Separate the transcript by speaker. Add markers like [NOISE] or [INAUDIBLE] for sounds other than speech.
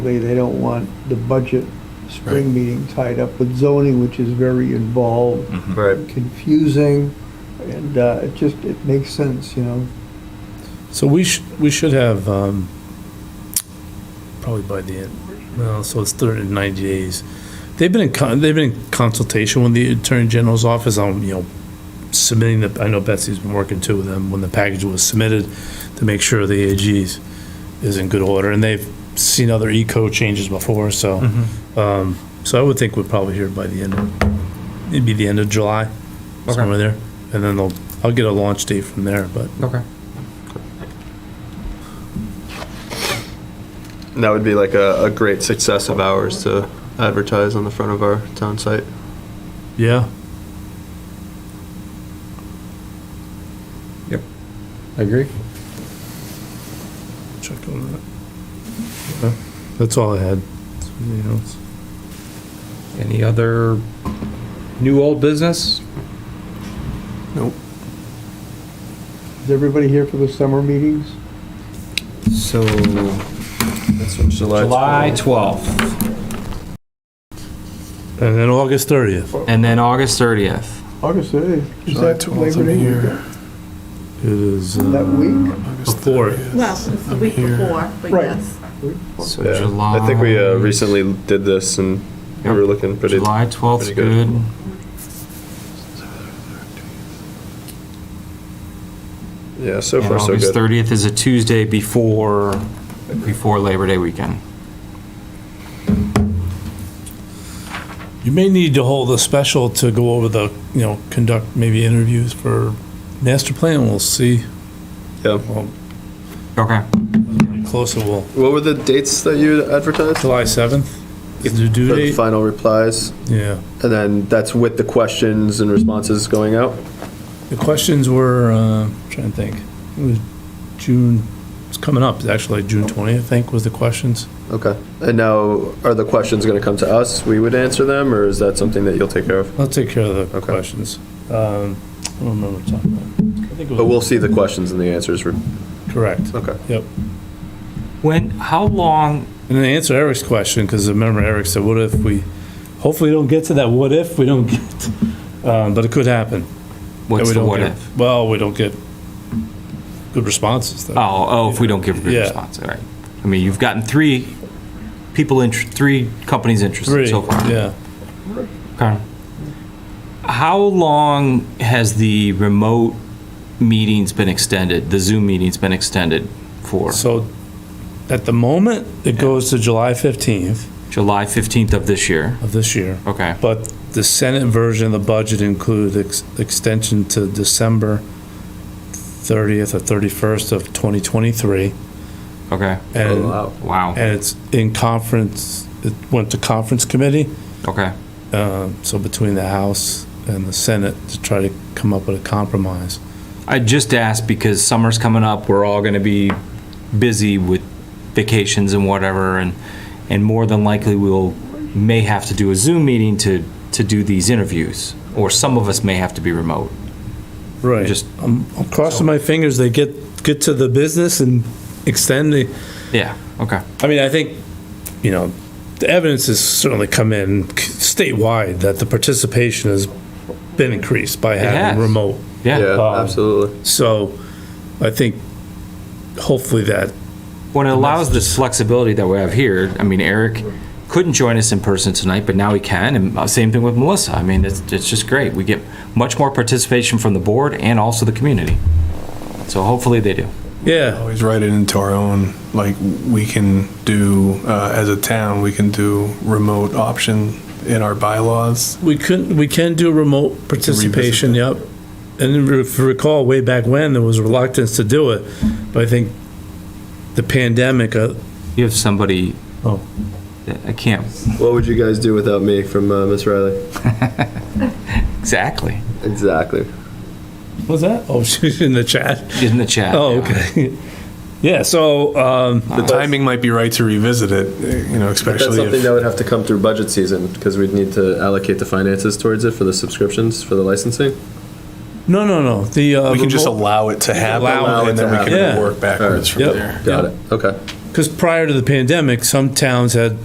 Speaker 1: They, they don't want the budget spring
Speaker 2: Right.
Speaker 1: meeting tied up with zoning, which is very involved,
Speaker 3: Mm-hmm.
Speaker 4: Right.
Speaker 1: confusing, and uh, it just, it makes sense, you know?
Speaker 2: So we should, we should have, um, probably by the end, well, so it's thirty, ninety days. They've been in con, they've been in consultation with the Attorney General's office on, you know, submitting the, I know Betsy's been working too with them when the package was submitted to make sure the AG's is in good order, and they've seen other eco changes before, so, um, so I would think we'd probably hear by the end, of it'd be the end of July,
Speaker 4: Okay.
Speaker 2: somewhere there, and then they'll, I'll get a launch date from there, but
Speaker 4: Okay. That would be like a, a great success of ours to advertise on the front of our town site.
Speaker 2: yeah.
Speaker 3: I agree.
Speaker 2: Check on that. Okay. That's all I had. Anything else?
Speaker 3: Any other new old business?
Speaker 1: Is everybody here for the summer meetings?
Speaker 3: So
Speaker 4: July.
Speaker 3: July 12th
Speaker 2: And then August thirtieth
Speaker 3: and then August 30th.
Speaker 1: August 8th. Is that Labor Day weekend?
Speaker 2: it is
Speaker 1: In that
Speaker 2: uh,
Speaker 1: week?
Speaker 2: before.
Speaker 5: Well, it's the week before, but
Speaker 1: Right.
Speaker 5: yes.
Speaker 3: So
Speaker 4: Yeah.
Speaker 3: July.
Speaker 4: I think we uh, recently did this and we
Speaker 3: Yep.
Speaker 4: were looking pretty.
Speaker 3: July 12th 's
Speaker 4: pretty good.
Speaker 3: good.
Speaker 4: Yeah, so
Speaker 3: And
Speaker 4: far so
Speaker 3: August
Speaker 4: good.
Speaker 3: 30th is a Tuesday before before Labor Day weekend.
Speaker 2: You may need to hold a special to go over the, you know, conduct maybe interviews for master plan. We'll see.
Speaker 4: Yeah.
Speaker 2: Well,
Speaker 3: Okay.
Speaker 2: closer, we'll,
Speaker 4: What were the dates that you advertised?
Speaker 2: July seventh is the due
Speaker 4: For the
Speaker 2: date.
Speaker 4: final replies,
Speaker 2: Yeah.
Speaker 4: and then that's with the questions and responses going out?
Speaker 2: The questions were, uh, I'm trying to think. It was June, it's coming up, It's actually June twentieth, I think, was the questions.
Speaker 4: Okay. And now, are the questions gonna come to us? We would answer them, or is that something that you'll take care of?
Speaker 2: I'll take care of the
Speaker 4: Okay.
Speaker 2: questions. Um, I don't remember what time. I think it
Speaker 4: But
Speaker 2: was,
Speaker 4: we'll see the questions and the answers. re-
Speaker 2: correct.
Speaker 4: Okay.
Speaker 2: Yep.
Speaker 3: When? How long?
Speaker 2: And then answer Eric's question, because remember Eric said, what if we, hopefully we don't get to that what if, we don't get, um, but it could happen. that
Speaker 3: What's
Speaker 2: we
Speaker 3: the
Speaker 2: don't
Speaker 3: what
Speaker 2: get-
Speaker 3: if?
Speaker 2: Well, we don't get good responses though.
Speaker 3: Oh, oh, if we don't give a good
Speaker 2: Yeah.
Speaker 3: response, all right. I mean, you've gotten three people, int- three companies interested
Speaker 2: Three,
Speaker 3: so far.
Speaker 2: yeah.
Speaker 3: Okay. How long has the remote meetings been extended, the Zoom meetings been extended for?
Speaker 2: So at the moment, it goes to July 15th
Speaker 3: July 15th of this year?
Speaker 2: of this year.
Speaker 3: Okay,
Speaker 2: But the Senate version of the budget included ex- extension to December 30th or 31st of 2023.
Speaker 3: okay,
Speaker 4: Oh,
Speaker 2: And
Speaker 4: wow.
Speaker 3: wow,
Speaker 2: and it's in conference, it went to conference committee,
Speaker 3: okay,
Speaker 2: um, so between the House and the Senate to try to come up with a compromise.
Speaker 3: I just asked because summer's coming up, we're all gonna be busy with vacations and whatever, and, and more than likely we'll, may have to do a Zoom meeting to, to do these interviews, or some of us may have to be remote.
Speaker 2: Right.
Speaker 3: Just-
Speaker 2: I'm I'm um, crossing my fingers, they get, get to the business and extend the,
Speaker 3: Yeah, okay,
Speaker 2: I mean, I think, you know, the evidence has certainly come in statewide that the participation has been increased by
Speaker 3: has.
Speaker 2: having remote.
Speaker 3: yeah.
Speaker 4: Yeah,
Speaker 2: Um,
Speaker 4: absolutely.
Speaker 2: So I think hopefully that,
Speaker 3: When it allows this flexibility that we have here, I mean, Eric couldn't join us in person tonight, but now he can, and uh, same thing with Melissa. I mean, it's, it's just great. We get much more participation from the board and also the community. So hopefully they do.
Speaker 2: yeah,
Speaker 6: Always write it into our own, like, we can do, uh, as a town, we can do remote option in our bylaws.
Speaker 2: we couldn't, we can do remote participation, yep. And if you recall, way back when, there was reluctance to do it, but I think the pandemic, uh,
Speaker 3: You have somebody.
Speaker 2: Oh.
Speaker 3: I can't.
Speaker 4: What would you guys do without me from uh, Miss Riley?
Speaker 3: Exactly.
Speaker 4: Exactly.
Speaker 2: was that? [LAUGHS] Oh, she's in the chat.
Speaker 3: In the chat.
Speaker 2: Oh,
Speaker 3: yeah.
Speaker 2: okay. [LAUGHS] Yeah, so, um,
Speaker 6: The timing might be right to revisit it, eh, you know,
Speaker 4: That's
Speaker 6: especially
Speaker 4: something that
Speaker 6: if,
Speaker 4: would have to come through budget season, because we'd need to allocate the finances towards it for the subscriptions, for the licensing.
Speaker 2: no, no, no, the. uh,
Speaker 6: we can just
Speaker 2: remote-
Speaker 6: allow it to happen,
Speaker 2: Allow
Speaker 4: it
Speaker 6: and then
Speaker 4: to
Speaker 6: we
Speaker 4: happen.
Speaker 6: can
Speaker 2: Yeah.
Speaker 6: work backwards from
Speaker 2: Yep.
Speaker 6: there.
Speaker 4: Got it, okay.
Speaker 2: Because prior to the pandemic, some towns had